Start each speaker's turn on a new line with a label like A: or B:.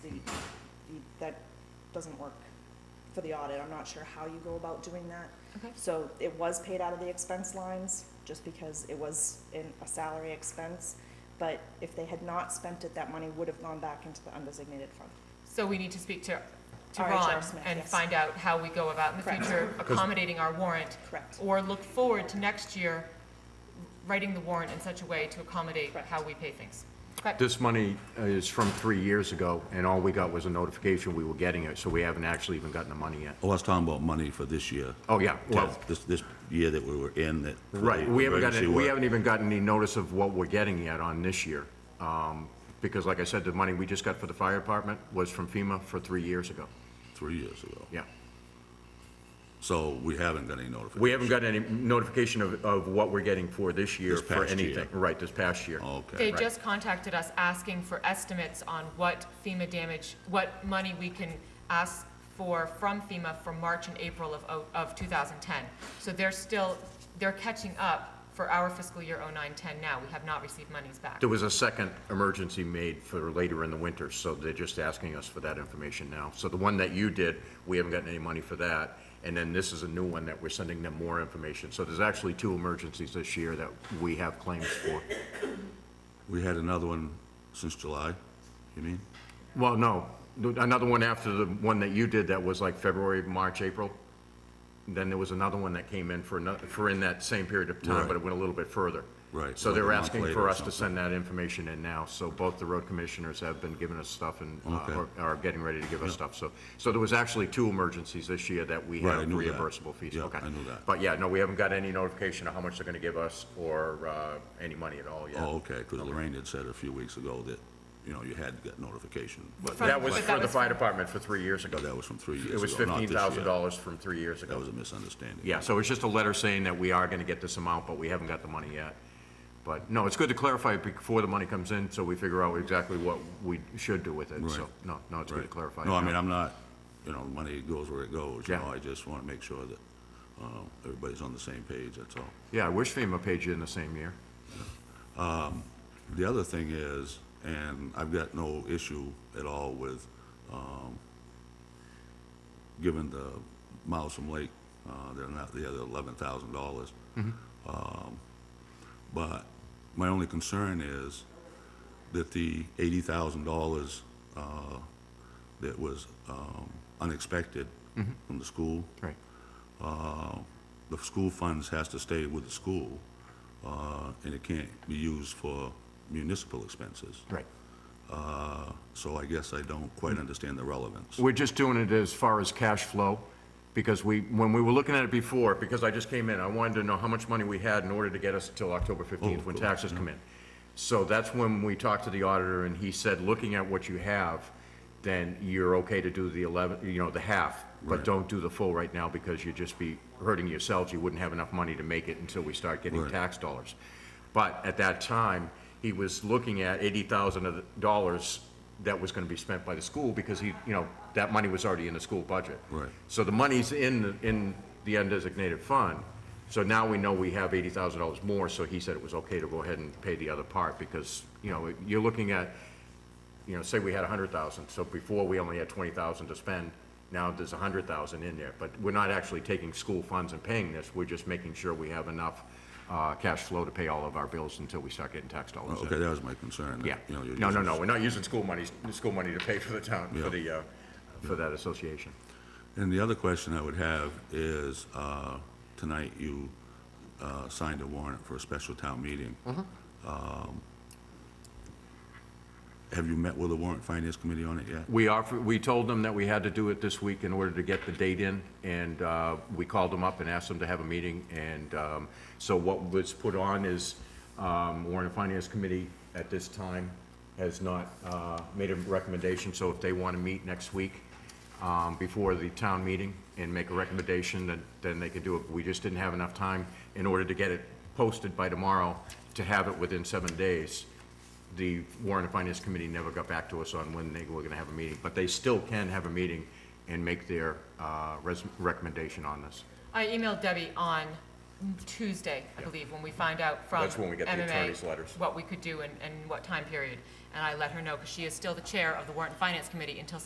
A: that doesn't work for the audit. I'm not sure how you go about doing that.
B: Okay.
A: So it was paid out of the expense lines, just because it was in a salary expense. But if they had not spent it, that money would have gone back into the undesignated fund.
B: So we need to speak to, to
A: RHR
B: Ron
A: Smith,
B: and
A: yes.
B: find out how we go about in the
A: Correct.
B: future accommodating our warrant,
A: Correct.
B: or look forward to next year writing the warrant in such a way to accommodate
A: Correct.
B: how we pay things. Okay.
C: This money uh, is from three years ago, and all we got was a notification we were getting it, so we haven't actually even gotten the money yet.
D: Oh, I was talking about money for this year.
C: Oh, yeah, well,
D: This, this year that we were in that. for the
C: right, we haven't
D: emergency
C: gotten, we
D: work.
C: haven't even gotten any notice of what we're getting yet on this year. Um, Because like I said, the money we just got for the fire department was from FEMA for three years ago.
D: Three years ago.
C: Yeah.
D: So we haven't got any notification.
C: We haven't gotten any notification of, of what we're getting for this year,
D: This
C: for
D: past year. Oh.
C: anything. Right, this past year.
B: They
D: Okay.
B: just contacted us asking for estimates on what FEMA damage, what money we can ask for from FEMA for March and April of, o- of 2010. So they're still, they're catching up for our fiscal year 09-10 now. We have not received monies back.
C: There was a second emergency made for later in the winter, so they're just asking us for that information now. So the one that you did, we haven't gotten any money for that. And then this is a new one that we're sending them more information. So there's actually two emergencies this year that we have claims for.
D: We had another one since July, you mean?
C: Well, no, another one after the one that you did that was like February, March, April. Then there was another one that came in for another, for in that same period of time,
D: Right.
C: but it went a little bit further.
D: Right,
C: So they're
D: like a month
C: asking
D: later
C: for
D: or
C: us to
D: something.
C: send that information in now, so both the road commissioners have been giving us stuff and uh,
D: Okay.
C: are- are getting ready to give us stuff, so. So there was actually two emergencies this year that we
D: Right, I
C: have
D: knew that.
C: reimbursable fees,
D: Yeah,
C: okay.
D: I knew that.
C: But yeah, no, we haven't got any notification of how much they're gonna give us or uh, any money at all yet.
D: Oh, okay, because Lorraine had said a few weeks ago that, you know, you had got notification.
C: But
B: From-
C: that was
B: but that
C: for the
B: was
C: fire
B: from-
C: department for three years ago.
D: No, that was from three years ago.
C: It was
D: not
C: fifteen
D: this
C: thousand
D: year.
C: dollars from three years
D: That
C: ago.
D: was a misunderstanding.
C: Yeah, so it's just a letter saying that we are gonna get this amount, but we haven't got the money yet. But, no, it's good to clarify it before the money comes in, so we figure out exactly what we should do with it, so,
D: Right.
C: no, no, it's good to clarify.
D: No, I mean,
C: yeah.
D: I'm not, you know, money goes where it goes, you
C: Yeah.
D: know, I just want to make sure that, uh, everybody's on the same page, that's all.
C: Yeah, I wish FEMA paid you in the same year.
D: The other thing is, and I've got no issue at all with, um, giving the Milsom Lake, uh, they're not, the other eleven thousand dollars. Um, But my only concern is that the eighty thousand dollars, uh, that was, um, unexpected from the school,
C: Right.
D: uh, the school funds has to stay with the school, uh, and it can't be used for municipal expenses.
C: Right.
D: Uh, So I guess I don't quite understand the relevance.
C: We're just doing it as far as cash flow, because we, when we were looking at it before, because I just came in, I wanted to know how much money we had in order to get us till October fifteenth when
D: cool.
C: taxes come in. So that's when we talked to the auditor, and he said, looking at what you have, then you're okay to do the eleven, you know, the half, but
D: Right.
C: don't do the full right now, because you'd just be hurting yourselves, you wouldn't have enough money to make it until we start getting
D: Right.
C: tax dollars. But at that time, he was looking at eighty thousand dollars that was gonna be spent by the school, because he, you know, that money was already in the school budget.
D: Right.
C: So the money's in, the- in the undesignated fund, so now we know we have eighty thousand dollars more, so he said it was okay to go ahead and pay the other part, because, you know, you're looking at, you know, say we had a hundred thousand, so before we only had twenty thousand to spend, now there's a hundred thousand in there, but we're not actually taking school funds and paying this, we're just making sure we have enough, uh, cash flow to pay all of our bills until we start getting tax dollars in.
D: Okay, that was my concern. that,
C: Yeah,
D: you know, you're
C: no, no,
D: using-
C: no, we're not using school money, school money to pay for the town, for
D: Yeah.
C: the, uh, for that association.
D: And the other question I would have is, uh, tonight you uh, signed a warrant for a special town meeting.
C: Mm-hmm.
D: Um, Have you met with the warrant finance committee on it yet?
C: We offered, we told them that we had to do it this week in order to get the date in, and uh, we called them up and asked them to have a meeting, and um, so what was put on is, um, Warren and Finance Committee at this time has not uh, made a recommendation, so if they want to meet next week um, before the town meeting and make a recommendation, then, then they could do it. We just didn't have enough time in order to get it posted by tomorrow, to have it within seven days the Warren and Finance Committee never got back to us on when they were gonna have a meeting, but they still can have a meeting and make their, uh, res- recommendation on this.
B: I emailed Debbie on Tuesday, I believe, when we find out from
C: That's when we get the
B: MMA
C: attorney's letters.
B: What we could do and, and what time period. And I let her know, because she is still the chair of the Warrant and Finance Committee until